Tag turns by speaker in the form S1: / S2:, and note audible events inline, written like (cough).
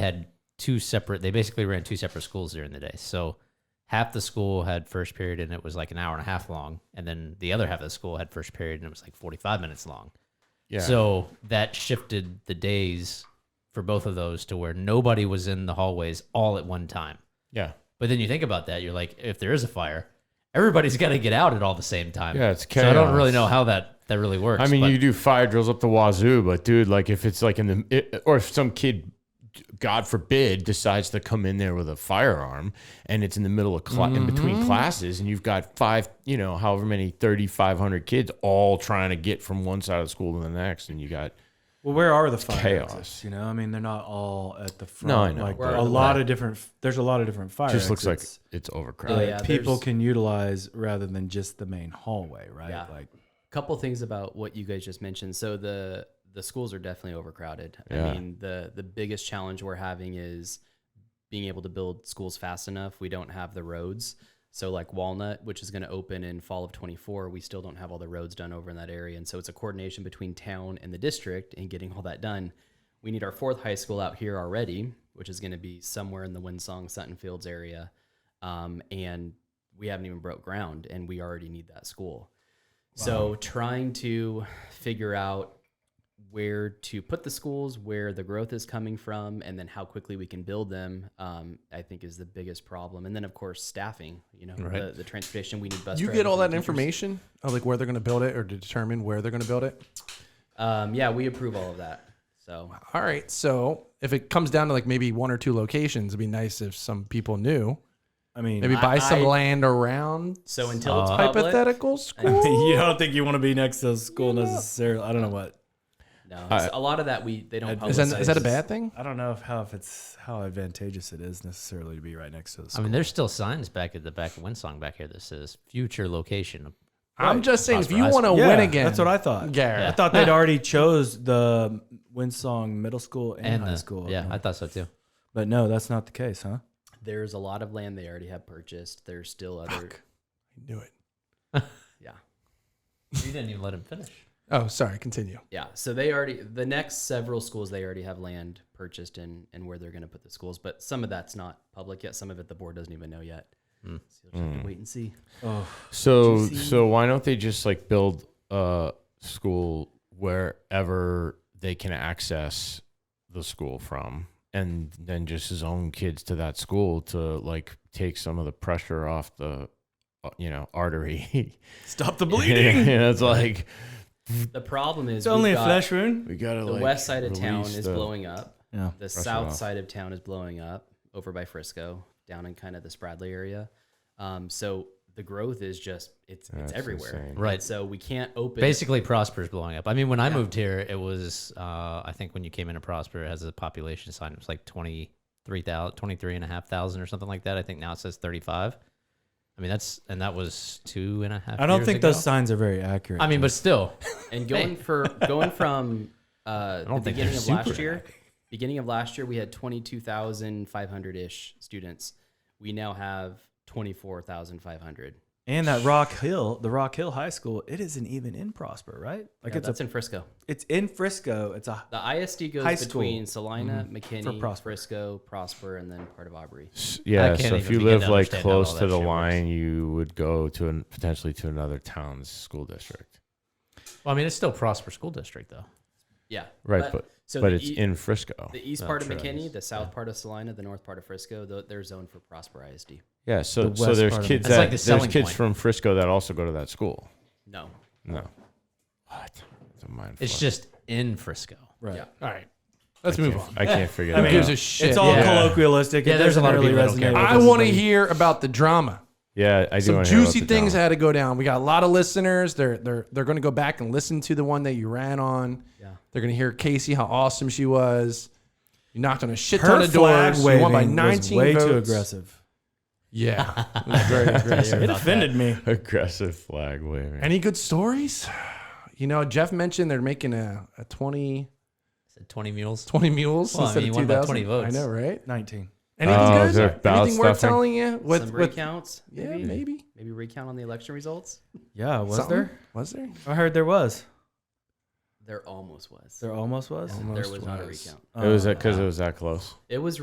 S1: had two separate. They basically ran two separate schools during the day. So half the school had first period and it was like an hour and a half long, and then the other half of the school had first period and it was like forty five minutes long.
S2: Yeah.
S1: So that shifted the days for both of those to where nobody was in the hallways all at one time.
S2: yeah.
S1: But then you think about that, you're like, if there is a fire, everybody's (laughs) got to get out at all the same time.
S2: Yeah, it's
S1: So I don't really
S2: chaos.
S1: know how that that really works.
S2: I mean,
S1: but
S2: you do fire drills up the wazoo, but dude, like if it's like in the, it, or if some kid, God forbid, decides to come in there with a firearm and it's in the middle of, cla- in
S1: Mm-hmm.
S2: between classes and you've got five, you know, however many, 3,500 kids all trying to get from one side of the school to the next. And you got,
S3: Well, where are the fire
S2: chaos.
S3: exits? You know, I mean, they're not all at the front.
S2: No, I know.
S3: Like
S2: Where
S3: a
S4: are the
S3: lot of different. There's a lot of different fire.
S2: it just looks like
S3: exits
S2: it's overcrowded.
S4: Oh,
S3: that
S4: yeah,
S3: people
S4: there's-
S3: can utilize rather than just the main hallway, right?
S4: Yeah.
S3: Like,
S4: couple things about what you guys just mentioned. So the the schools are definitely overcrowded.
S2: Yeah.
S4: I mean, the the biggest challenge we're having is being able to build schools fast enough. We don't have the roads. So like Walnut, which is going to open in fall of 24, we still don't have all the roads done over in that area. And so it's a coordination between town and the district and getting all that done. We need our fourth high school out here already, which is going to be somewhere in the Winsong Sutton Fields area. Um, and we haven't even broke ground and we already need that school. So trying to figure out where to put the schools, where the growth is coming from, and then how quickly we can build them, um, I think is the biggest problem. And then of course staffing. You know, the, the transportation we need bus.
S5: You
S4: drivers,
S5: get all
S4: we need
S5: that
S4: teachers.
S5: information of like where they're going to build it or to determine where they're going to build it.
S4: Um, yeah, we approve all of that. So
S5: All right. So if it comes down to like maybe one or two locations, it'd be nice if some people knew.
S3: I mean,
S5: Maybe
S4: I-
S5: buy some
S4: I-
S5: land around
S4: so until
S5: Uh,
S4: it's
S3: (laughs)
S4: public,
S5: hypothetical school.
S3: you don't think you want to be next to a school necessarily. I don't know what.
S4: No, it's- a lot of that we they don't.
S5: Is
S3: Is
S5: that,
S4: publicize.
S5: is that a bad thing?
S3: I don't know if how if it's how advantageous it is necessarily to be right next to the
S1: I
S3: school.
S1: mean, there's still signs back at the back of Winsong back here that says future location.
S5: I'm just saying, if
S1: Prosper
S5: you
S1: High
S5: want to
S1: School.
S5: win again,
S3: That's what I thought.
S5: Garrett.
S3: I thought they'd already chose the Winsong Middle School and,
S1: And
S3: High
S1: the,
S3: School.
S1: Yeah, I thought so too.
S3: but no, that's not the case, huh?
S4: There's a lot of land they already have purchased. There's still other.
S5: knew it.
S4: Yeah.
S1: You didn't even let him finish.
S5: Oh, sorry. Continue.
S4: Yeah, so they already the next several schools they already have land purchased and and where they're going to put the schools, but some of that's not public yet. Some of it the board doesn't even know yet. So you'll just
S2: Hmm.
S4: have to wait and see.
S3: Oh,
S2: So
S4: GC.
S2: so why don't they just like build a school wherever they can access the school from and then just his own kids to that school to like take some of the pressure off the uh, you know artery (laughs)
S3: stop the
S2: bleeding (laughs) it's like
S4: The problem is
S3: It's only
S4: we've
S3: a
S4: got-
S3: flesh wound.
S2: we gotta
S4: The
S2: like,
S4: west side of town
S2: release
S4: is
S2: the-
S4: blowing up.
S3: Yeah.
S4: The south
S2: off.
S4: side of town is blowing up over by Frisco, down in kind of the Spradley area. Um, so the growth is just it's
S2: That's
S4: it's everywhere.
S2: insane.
S1: Right.
S4: So we can't open
S1: Basically, Prosper's blowing up. I mean, when I moved here, it was, uh, I think when you came into Prosper, it has a population sign. It was like 23,000, 23,500 or something like that. I think now it says 35. I mean, that's, and that was two and a half
S3: I don't
S1: years
S3: think
S1: ago.
S3: those signs are very accurate.
S1: I mean, but still, (laughs)
S4: And going for going from uh, the
S1: don't think
S4: beginning
S1: they're
S4: of last
S1: super
S4: year,
S1: happy.
S4: beginning of last year, we had twenty two thousand five hundred ish students. We now have twenty four thousand five hundred.
S3: and that Rock Hill, the Rock Hill High School, it isn't even in Prosper, right? Like
S4: Like
S3: it's
S4: that's
S3: a,
S4: in Frisco.
S3: it's in Frisco. It's a
S4: The ISD goes
S3: High school.
S4: between Salina,
S3: For
S4: McKinney,
S3: Prosper.
S4: Frisco, Prosper, and then part of Aubrey.
S2: S- yeah
S1: can't
S2: so if
S1: even
S2: you
S1: begin
S2: live
S1: to
S2: like
S1: understand how all
S2: close to
S1: that
S2: the
S1: shit works.
S2: line you would go to an, potentially to another town's school district
S1: well, I mean, it's still Prosper School District, though.
S4: Yeah.
S2: right but but,
S4: so the
S2: it's
S4: e-
S2: in frisco
S4: the east part of McKinney, the south part of Salina, the north part of Frisco. tho- They're zoned for Prosper ISD.
S2: Yeah, so
S3: The
S2: so
S3: west
S2: there's
S3: part of
S2: kids
S1: That's
S2: that
S1: like the
S2: there's
S1: selling
S2: kids
S1: point.
S2: from Frisco that also go to that school.
S4: No.
S2: No, what? It's a mind.
S1: It's
S2: fuck.
S1: just in Frisco.
S3: right.
S4: Yeah.
S5: All right. Let's
S2: I
S5: move
S2: can't-
S5: on.
S2: I can't figure
S5: Who
S2: that
S5: gives
S2: out.
S5: a shit?
S3: It's all
S1: Yeah.
S3: colloquialistic.
S1: Yeah,
S3: It
S1: there's a lot of
S3: doesn't
S1: people that
S3: really
S1: don't care.
S3: resonate
S5: I
S3: with
S5: want to
S3: everybody.
S5: hear about the drama.
S2: yeah, I do.
S5: Some
S2: wanna hear about
S5: juicy
S2: the
S5: things
S2: drama.
S5: had to go down. We got a lot of listeners. They're they're they're going to go back and listen to the one that you ran on.
S4: Yeah.
S5: They're going to hear Casey how awesome she was. You knocked on a shit
S3: Her
S5: ton of
S3: flag
S5: doors. You won by
S3: waving was
S5: 19
S3: way
S5: votes.
S3: too aggressive. (laughs)
S5: Yeah, it was very aggressive.
S3: It offended me.
S2: (laughs) Aggressive flag waving.
S5: Any good stories? You know, Jeff mentioned they're making a, a 20,
S1: Said 20 mules.
S5: 20 mules
S1: Well, I
S5: instead
S1: mean, you
S5: of
S1: won by
S5: 2000.
S1: 20 votes.
S5: I know, right?
S3: 19.
S5: Anything
S2: Oh, is there
S5: good?
S2: ballot
S5: Anything worth
S2: stuffing?
S5: telling you? With,
S4: Some
S5: with,
S4: recounts.
S5: yeah, maybe.
S4: Maybe recount on the election results.
S3: Yeah, was
S5: Something?
S3: there?
S5: Was there?
S3: I heard there was.
S4: There almost was.
S3: There almost was.
S4: there was not a recount.
S2: uh, it was because it was that close.
S4: It was